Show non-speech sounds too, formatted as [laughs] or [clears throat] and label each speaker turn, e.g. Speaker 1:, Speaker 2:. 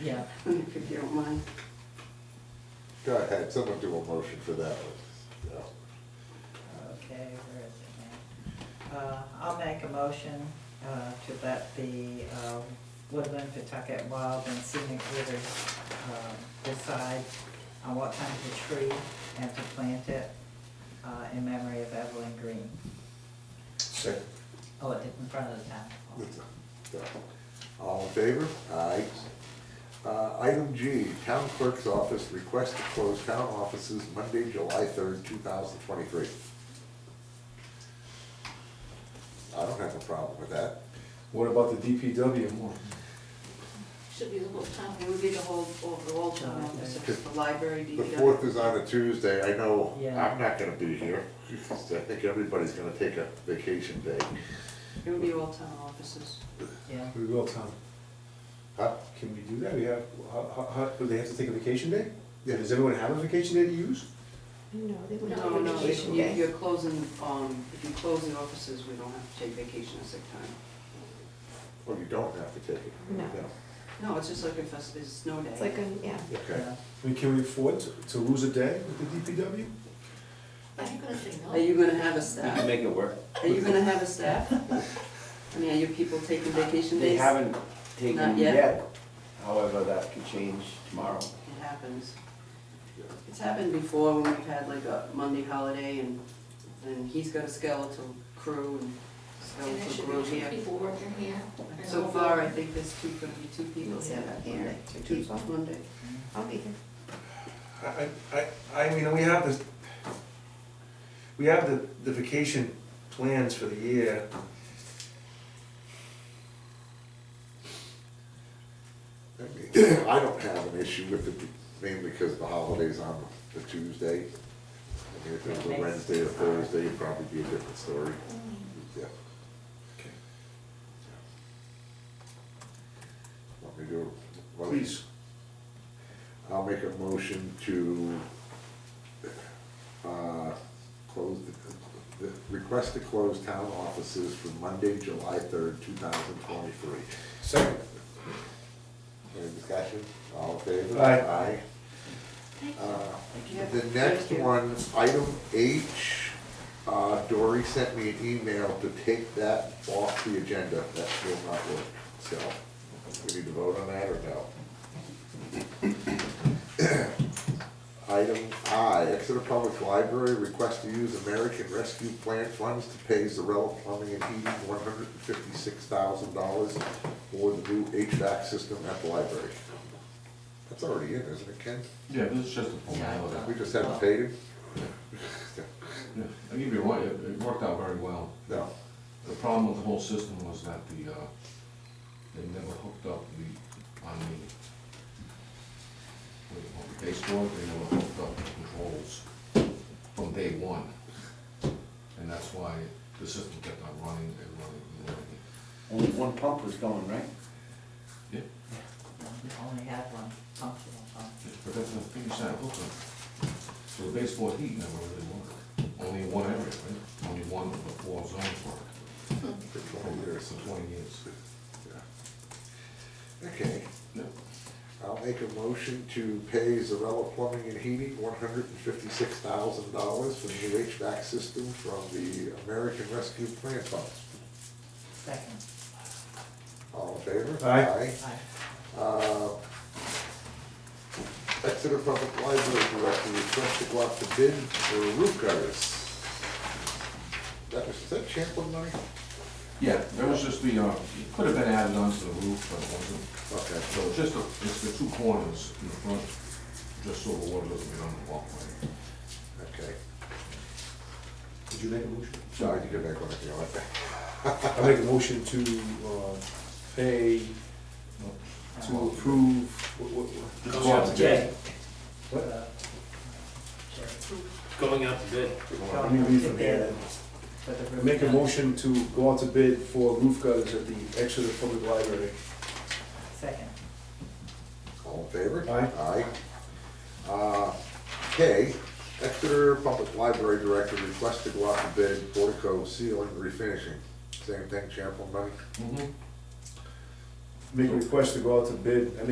Speaker 1: yeah.
Speaker 2: if you don't mind.
Speaker 3: Go ahead, someone do a motion for that one. Yeah.
Speaker 1: Okay, where is it now? Uh, I'll make a motion uh, to let the um, Woodland, Pawtucket Wild and Scenic River um, decide on what kind of a tree and to plant it uh, in memory of Evelyn Green.
Speaker 3: Second.
Speaker 1: Oh, it did in front of the town. hall.
Speaker 3: All in favor? Aye. Uh, item G, town clerk's office request to close town offices Monday, July third, two thousand twenty-three. I don't have a problem with that.
Speaker 4: What about the DPW more?
Speaker 2: Should be the whole time, it would be the whole, overall town office, if it's the library,
Speaker 3: The
Speaker 2: DPW.
Speaker 3: fourth is on a Tuesday, I know
Speaker 1: Yeah.
Speaker 3: I'm not gonna be here, because I think everybody's gonna take a vacation day.
Speaker 2: It would be all town offices.
Speaker 1: Yeah,
Speaker 4: We will, Tom.
Speaker 3: Huh?
Speaker 4: Can we do that? We have, how, how- how, do they have to take a vacation day?
Speaker 3: Yeah.
Speaker 4: Does everyone have a vacation day to use?
Speaker 5: No, they would not.
Speaker 2: No, no,
Speaker 5: vacation
Speaker 2: you-
Speaker 5: day.
Speaker 2: you're closing, um, if you close the offices, we don't have to take vacation or sick time.
Speaker 3: Well, you don't have to take it.
Speaker 5: No.
Speaker 2: No, it's just like a fest, it's snow day.
Speaker 5: It's like, a yeah,
Speaker 3: Okay.
Speaker 1: yeah.
Speaker 4: I mean, can we afford to, to lose a day with the DPW?
Speaker 6: Are you gonna say
Speaker 2: Are you gonna have a staff?
Speaker 7: make it work.
Speaker 2: Are you gonna have a staff? I mean, are your people taking vacation
Speaker 7: They
Speaker 2: days?
Speaker 7: haven't taken
Speaker 2: Not
Speaker 7: it
Speaker 2: yet.
Speaker 7: yet, however, that could change tomorrow.
Speaker 2: It happens. It's happened before when we've had like a Monday holiday and, and he's got a skeletal crew and
Speaker 6: And
Speaker 2: skeletal
Speaker 6: there should
Speaker 2: crew
Speaker 6: be two
Speaker 2: here.
Speaker 6: people working here.
Speaker 2: So far, I think there's two, gonna be two people here that
Speaker 5: Here,
Speaker 2: Monday.
Speaker 5: two
Speaker 2: Two-
Speaker 5: people.
Speaker 2: Monday.
Speaker 5: I'll be here.
Speaker 4: I, I, I I mean, we have this, we have the, the vacation plans for the year.
Speaker 3: I mean, [clears throat] I don't have an issue with it, mainly because the holiday's on the Tuesday. I mean, if it was a Wednesday or Thursday, it'd probably be a different story. Yeah. Want me to? well,
Speaker 4: Please,
Speaker 3: I'll make a motion to, uh, close, the- the, request to close town offices for Monday, July third, two thousand twenty-three.
Speaker 4: second.
Speaker 3: Any discussion? All in favor?
Speaker 4: Aye.
Speaker 3: Aye.
Speaker 6: Thank you.
Speaker 3: Uh,
Speaker 2: you.
Speaker 3: The next
Speaker 2: Thank you.
Speaker 3: one, item H, uh, Dory sent me an email to take that off the agenda. That will not work, so we need to vote on that or no? [coughs] Item I, Exeter Public Library, request to use American Rescue Plan funds to pay Zarella Plumbing and Heating one hundred and fifty-six thousand dollars for the new HVAC system at the library. That's already in, isn't it, Ken?
Speaker 8: Yeah, this is just a
Speaker 1: Yeah.
Speaker 8: formality.
Speaker 3: We just haven't paid it?
Speaker 8: Yeah, I give you one, it it worked out very well.
Speaker 3: [laughs] No,
Speaker 8: The problem with the whole system was that the, uh, they never hooked up the, on the, what- what they stored, they never hooked up the controls from day one. And that's why the system kept on running and running and running.
Speaker 7: Only one pump was going, right?
Speaker 8: Yeah,
Speaker 1: We Only had one functional pump.
Speaker 8: but that's the thing, you said, hooked up. So the baseboard heat never really worked. Only one area, right? Only one of the four zones worked.
Speaker 3: for twenty years.
Speaker 8: For twenty years.
Speaker 3: Yeah. Okay,
Speaker 8: Yeah.
Speaker 3: I'll make a motion to pay Zarella Plumbing and Heating one hundred and fifty-six thousand dollars for the new HVAC system from the American Rescue Plan Funds.
Speaker 1: Second,
Speaker 3: All in favor?
Speaker 4: Aye.
Speaker 1: aye.
Speaker 3: Uh, Exeter Public Library Director request to go out to bid for roof gutters. That was, is that Champlin money?
Speaker 8: Yeah, there was just the, uh, it could have been added onto the roof, but it wasn't.
Speaker 3: Okay.
Speaker 8: So it's just, the- it's the two corners in the front, just so the water doesn't get on the walkway.
Speaker 3: Okay,
Speaker 4: Did you make a motion?
Speaker 3: sorry, you can make one if you want.
Speaker 4: I make a motion to, uh, pay, to approve, what, what, what?
Speaker 9: Going out to bid,
Speaker 4: What?
Speaker 1: Uh, Jay.
Speaker 9: going out to bid.
Speaker 4: Let me read from here.
Speaker 1: For the
Speaker 4: I
Speaker 1: roof
Speaker 4: Make a
Speaker 1: gutter.
Speaker 4: motion to go out to bid for roof gutters at the Exeter Public Library.
Speaker 1: Second,
Speaker 3: All in favor?
Speaker 4: Aye.
Speaker 3: Aye. Uh, K, Exeter Public Library Director requests to go out to bid portico ceiling refinishing. Same thing, Champlin money?
Speaker 8: Mm-hmm.
Speaker 4: Make a request to go out to bid, I